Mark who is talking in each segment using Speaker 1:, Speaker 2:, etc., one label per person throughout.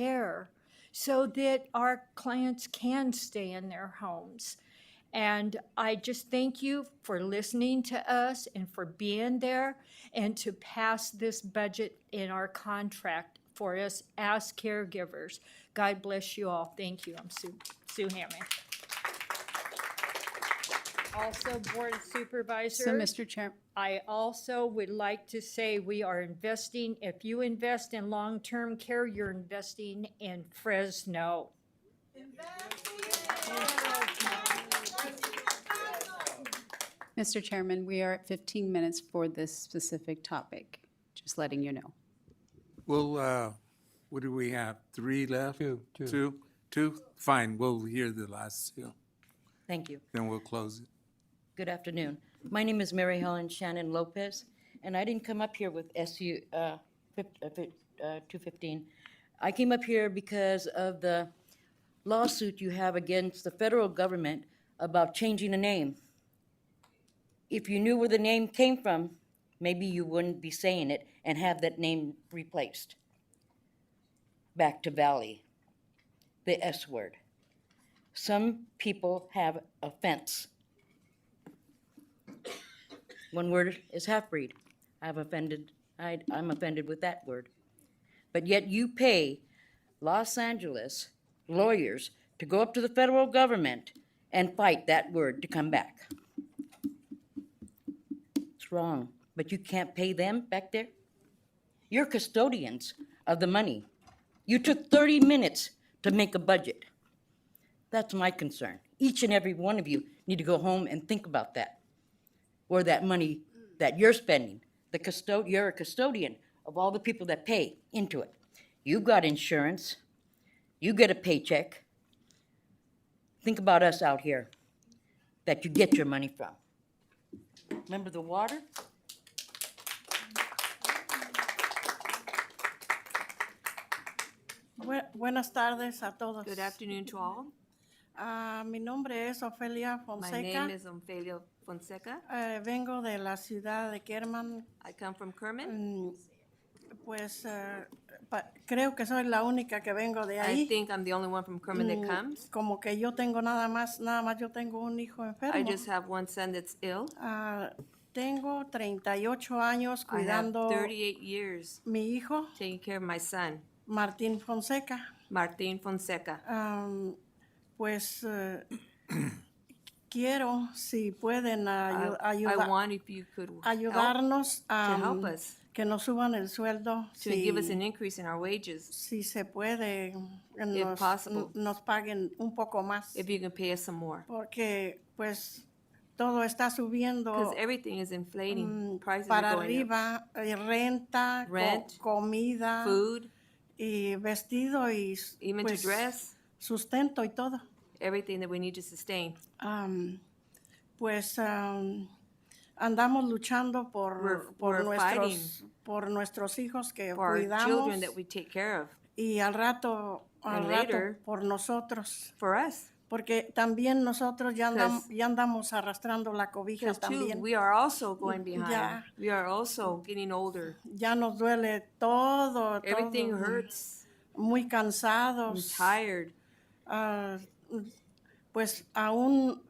Speaker 1: care so that our clients can stay in their homes. And I just thank you for listening to us and for being there and to pass this budget in our contract for us as caregivers. God bless you all. Thank you. I'm Sue, Sue Hammond. Also, Board of Supervisors.
Speaker 2: So, Mr. Chair,
Speaker 1: I also would like to say we are investing, if you invest in long-term care, you're investing in Fresno.
Speaker 2: Mr. Chairman, we are at 15 minutes for this specific topic, just letting you know.
Speaker 3: Well, uh, what do we have? Three left?
Speaker 4: Two, two.
Speaker 3: Two? Two? Fine, we'll hear the last two,
Speaker 5: Thank you.
Speaker 3: then we'll close it.
Speaker 5: Good afternoon. My name is Mary Helen Shannon Lopez, and I didn't come up here with SU uh, fif- uh, fif- uh, 215. I came up here because of the lawsuit you have against the federal government about changing a name. If you knew where the name came from, maybe you wouldn't be saying it and have that name replaced back to Valley, the S word. Some people have offense. One word is half-breed. I've offended, I, I'm offended with that word. But yet you pay Los Angeles lawyers to go up to the federal government and fight that word to come back. It's wrong, but you can't pay them back there? You're custodians of the money. You took thirty minutes to make a budget. That's my concern. Each and every one of you need to go home and think about that or that money that you're spending. The custod, you're a custodian of all the people that pay into it. You've got insurance. You get a paycheck. Think about us out here that you get your money from. Remember the water?
Speaker 6: Bu- Buenas tardes a todos.
Speaker 7: Good afternoon to all.
Speaker 6: Ah, mi nombre es Ofelia
Speaker 7: My
Speaker 6: Fonseca.
Speaker 7: name is Ofelia Fonseca.
Speaker 6: Eh, vengo de la ciudad de Kerman.
Speaker 7: I come from Kerman.
Speaker 6: Mm, Pues eh, pa- creo que soy la única que vengo de
Speaker 7: I
Speaker 6: ahí. Mm.
Speaker 7: think I'm the only one from Kerman that comes.
Speaker 6: Como que yo tengo nada más, nada más yo tengo un hijo
Speaker 7: I
Speaker 6: enfermo.
Speaker 7: just have one son that's ill.
Speaker 6: Ah, tengo 38 años
Speaker 7: I have
Speaker 6: cuidando
Speaker 7: 38 years
Speaker 6: mi hijo,
Speaker 7: taking care of my son,
Speaker 6: Martín Fonseca.
Speaker 7: Martin Fonseca.
Speaker 6: Am, pues eh, quiero, si pueden
Speaker 7: I
Speaker 6: ayu-
Speaker 7: I
Speaker 6: ayudar.
Speaker 7: want if you could help
Speaker 6: ayudarnos a
Speaker 7: to help us.
Speaker 6: que nos suban el sueldo
Speaker 7: to
Speaker 6: si,
Speaker 7: give us an increase in our wages,
Speaker 6: si se puede, que nos,
Speaker 7: possible.
Speaker 6: n- nos paguen un poco más,
Speaker 7: if you can pay us some more.
Speaker 6: porque pues todo está
Speaker 7: Because
Speaker 6: subiendo
Speaker 7: everything is inflating, prices are
Speaker 6: Oh, mm, para
Speaker 7: going up.
Speaker 6: arriba, eh, renta, co-
Speaker 7: Rent,
Speaker 6: comida
Speaker 7: Food,
Speaker 6: y vestido y s-
Speaker 7: even to
Speaker 6: pues,
Speaker 7: dress,
Speaker 6: sustento y todo.
Speaker 7: everything that we need to sustain.
Speaker 6: Am, pues am, andamos luchando por,
Speaker 7: We're-
Speaker 6: por
Speaker 7: we're
Speaker 6: nuestros, por nuestros hijos que
Speaker 7: For our children
Speaker 6: cuidamos.
Speaker 7: that we take care of,
Speaker 6: y al rato, al
Speaker 7: And
Speaker 6: rato
Speaker 7: later-
Speaker 6: por nosotros,
Speaker 7: for us.
Speaker 6: porque también nosotros ya, andam-
Speaker 7: 'Cause-
Speaker 6: ya andamos arrastrando la cobija
Speaker 7: Because too,
Speaker 6: también.
Speaker 7: we are also going behind.
Speaker 6: Yeah.
Speaker 7: We are also getting older.
Speaker 6: ya nos duele todo,
Speaker 7: Everything
Speaker 6: todo,
Speaker 7: hurts.
Speaker 6: muy
Speaker 7: I'm
Speaker 6: cansados.
Speaker 7: tired.
Speaker 6: Ah, pues aún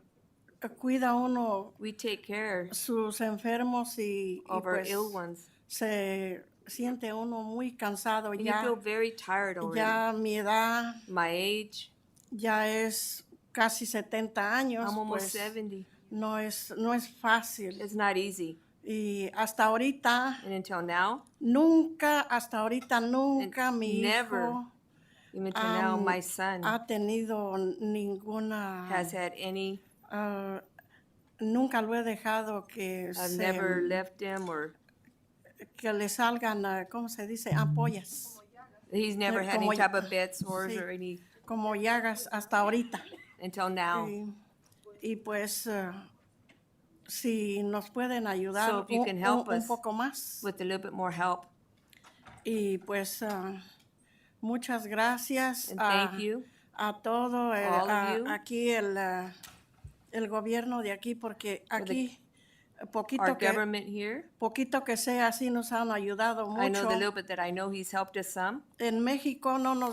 Speaker 6: eh, cuida uno
Speaker 7: We take care
Speaker 6: sus enfermos y, y
Speaker 7: of our
Speaker 6: pues
Speaker 7: ill ones.
Speaker 6: se siente uno muy cansado
Speaker 7: And you feel
Speaker 6: ya.
Speaker 7: very tired already.
Speaker 6: Ya mi edad
Speaker 7: My age,
Speaker 6: ya es casi 70 años.
Speaker 7: I'm almost
Speaker 6: pues,
Speaker 7: 70.
Speaker 6: No es, no es fácil.
Speaker 7: It's not easy.
Speaker 6: Y hasta ahorita,
Speaker 7: And until now,
Speaker 6: nunca, hasta ahorita, nunca mi
Speaker 7: never
Speaker 6: hijo
Speaker 7: even until now,
Speaker 6: Um,
Speaker 7: my son
Speaker 6: ha tenido ninguna,
Speaker 7: has had any.
Speaker 6: ah, nunca lo he dejado que,
Speaker 7: I've
Speaker 6: se-
Speaker 7: uh, never left him or
Speaker 6: que le salgan, ah, ¿cómo se dice? Ampollas,
Speaker 7: he's never had
Speaker 6: como
Speaker 7: any
Speaker 6: ya-
Speaker 7: type of bed sores
Speaker 6: Sí.
Speaker 7: or any
Speaker 6: como llagas hasta ahorita.
Speaker 7: until now.
Speaker 6: Y, y pues, ah, si nos pueden ayudar
Speaker 7: So if you
Speaker 6: un-
Speaker 7: can help
Speaker 6: un- un
Speaker 7: us
Speaker 6: poco más.
Speaker 7: With a little bit more help.
Speaker 6: Y pues ah, muchas gracias Ah,
Speaker 7: And
Speaker 6: a,
Speaker 7: thank you.
Speaker 6: a todo eh,
Speaker 7: all of
Speaker 6: a-
Speaker 7: you.
Speaker 6: aquí el, ah, el gobierno de aquí porque
Speaker 7: the-
Speaker 6: aquí eh,
Speaker 7: Our
Speaker 6: poquito que,
Speaker 7: government here.
Speaker 6: poquito que sea así nos han ayudado
Speaker 7: I know
Speaker 6: mucho.
Speaker 7: the little bit that I know he's helped us some.
Speaker 6: En México no nos